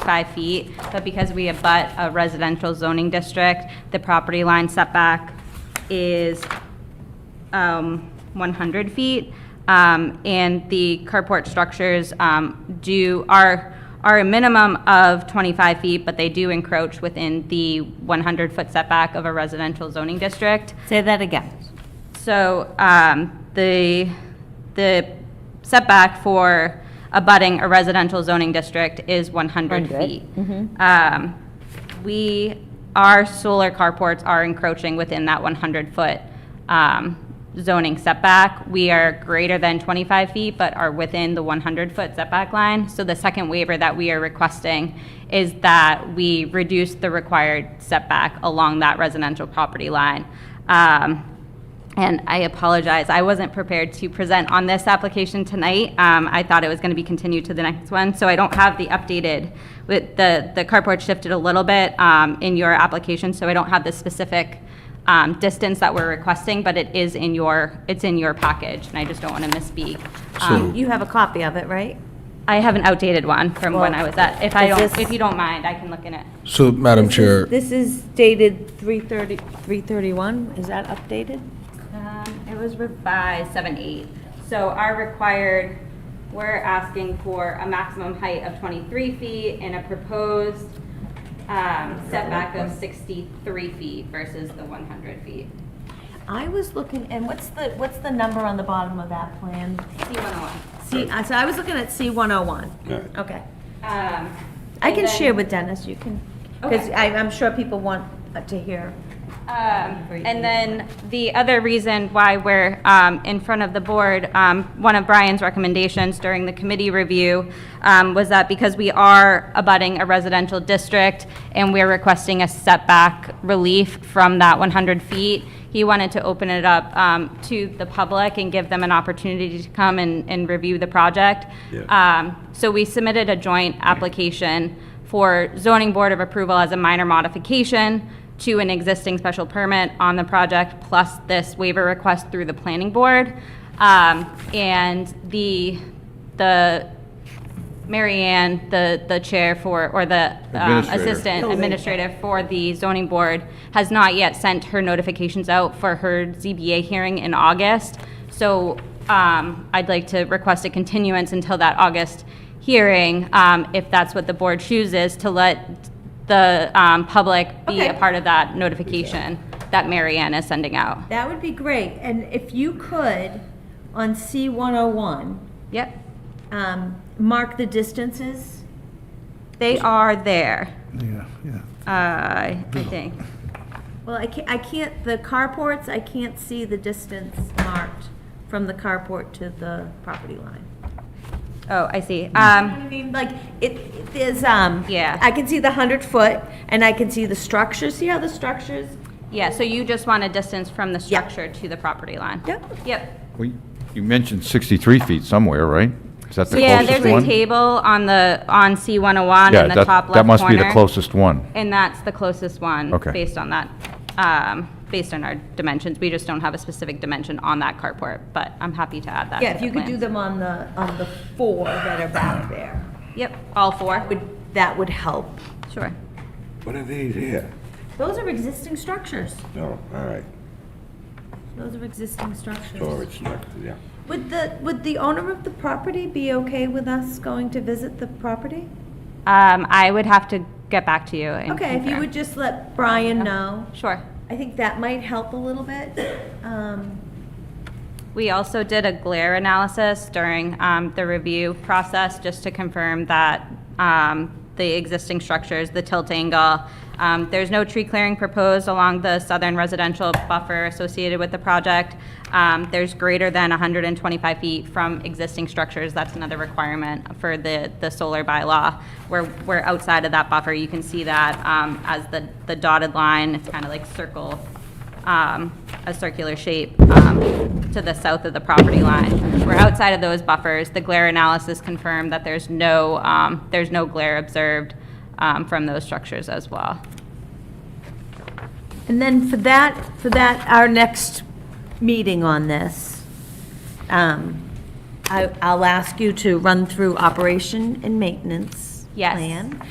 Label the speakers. Speaker 1: five feet, but because we abut a residential zoning district, the property line setback is um, 100 feet, um, and the carport structures um, do, are, are a minimum of 25 feet, but they do encroach within the 100-foot setback of a residential zoning district.
Speaker 2: Say that again.
Speaker 1: So um, the, the setback for abutting a residential zoning district is 100
Speaker 2: 100,
Speaker 1: feet.
Speaker 2: Mm-hmm.
Speaker 1: Um, We, our solar carports are encroaching within that 100-foot um, zoning setback. We are greater than 25 feet, but are within the 100-foot setback line. So the second waiver that we are requesting is that we reduce the required setback along that residential property line. Um, and I apologize, I wasn't prepared to present on this application tonight. Um, I thought it was going to be continued to the next one, so I don't have the updated, with the, the carport shifted a little bit um, in your application, so I don't have the specific um, distance that we're requesting, but it is in your, it's in your package, and I just don't want to misspeak. Um,
Speaker 2: Oh, You have a copy of it, right?
Speaker 1: I have an outdated one from when I was at, if I
Speaker 2: Well, is
Speaker 1: don't,
Speaker 2: this-
Speaker 1: if you don't mind, I can look in it.
Speaker 3: So, Madam Chair,
Speaker 2: This is dated 330, 331, is that updated?
Speaker 1: Um, It was revised seven eight. So our required, we're asking for a maximum height of 23 feet and a proposed um, setback of 63 feet versus the 100 feet.
Speaker 2: I was looking, and what's the, what's the number on the bottom of that plan?
Speaker 1: C101.
Speaker 2: C, I- so I was looking at C 101.
Speaker 4: Alright.
Speaker 2: Okay.
Speaker 1: Um,
Speaker 2: I
Speaker 1: and
Speaker 2: can
Speaker 1: then,
Speaker 2: share with Dennis, you can, because
Speaker 1: Okay.
Speaker 2: I'm sure people want uh, to hear.
Speaker 1: um, And then the other reason why we're um, in front of the board, um, one of Brian's recommendations during the committee review um, was that because we are abutting a residential district and we're requesting a setback relief from that 100 feet, he wanted to open it up um, to the public and give them an opportunity to come and, and review the project.
Speaker 4: Yeah.
Speaker 1: Um, So we submitted a joint application for zoning board of approval as a minor modification to an existing special permit on the project, plus this waiver request through the planning board. Um, And the, the, Mary Ann, the, the chair for, or the um,
Speaker 3: Administrator.
Speaker 1: assistant administrative for the zoning board, has not yet sent her notifications out for her ZBA hearing in August. So um, I'd like to request a continuance until that August hearing, um, if that's what the board chooses, to let the um, public be a
Speaker 2: Okay.
Speaker 1: part of that notification that Mary Ann is sending out.
Speaker 2: That would be great, and if you could, on C 101,
Speaker 1: Yep,
Speaker 2: um, mark the distances.
Speaker 1: they are there,
Speaker 5: Yeah, yeah.
Speaker 1: uh, I think.
Speaker 2: Well, I can't, I can't, the carports, I can't see the distance marked from the carport to the property line.
Speaker 1: Oh, I see.
Speaker 2: You know
Speaker 1: Um,
Speaker 2: what I mean? Like, it, it is, um.
Speaker 1: Yeah.
Speaker 2: I can see the hundred foot, and I can see the structure, see how the structures?
Speaker 1: Yeah, so you just want a distance from the structure to the property line?
Speaker 2: Yep.
Speaker 1: Yep.
Speaker 6: Well, You mentioned 63 feet somewhere, right? Is that the closest one?
Speaker 1: Yeah, there's a table on the, on C101
Speaker 6: Yeah,
Speaker 1: in the
Speaker 6: that-
Speaker 1: top left corner.
Speaker 6: That must be the closest one.
Speaker 1: And that's the closest one.
Speaker 6: Okay.
Speaker 1: Based on that, um, based on our dimensions. We just don't have a specific dimension on that carport, but I'm happy to add that
Speaker 2: Yeah,
Speaker 1: to
Speaker 2: if
Speaker 1: the
Speaker 2: you could do
Speaker 1: plans.
Speaker 2: them on the, on the four that are back there,
Speaker 1: Yep, all four.
Speaker 2: would, that would help.
Speaker 1: Sure.
Speaker 4: What are these here?
Speaker 2: Those are existing structures.
Speaker 4: No, all right,
Speaker 2: Those are existing
Speaker 4: so
Speaker 2: structures.
Speaker 4: it's not, yeah.
Speaker 2: Would the, would the owner of the property be okay with us going to visit the property?
Speaker 1: Um, I would have to get back to you and
Speaker 2: Okay, if you
Speaker 1: confirm.
Speaker 2: would just let Brian know,
Speaker 1: Sure.
Speaker 2: I think that might help a little bit. Um,
Speaker 1: We also did a glare analysis during um, the review process, just to confirm that um, the existing structures, the tilt angle, um, there's no tree clearing proposed along the southern residential buffer associated with the project. Um, There's greater than 125 feet from existing structures. That's another requirement for the, the solar bylaw. We're, we're outside of that buffer. You can see that um, as the the dotted line. It's kind of like circle um, a circular shape um, to the south of the property line. We're outside of those buffers. The glare analysis confirmed that there's no, um, there's no glare observed um, from those structures as well.
Speaker 2: And then for that, for that, our next meeting on this, um, I- I'll ask you to run through operation and maintenance
Speaker 1: Yes.
Speaker 2: plan.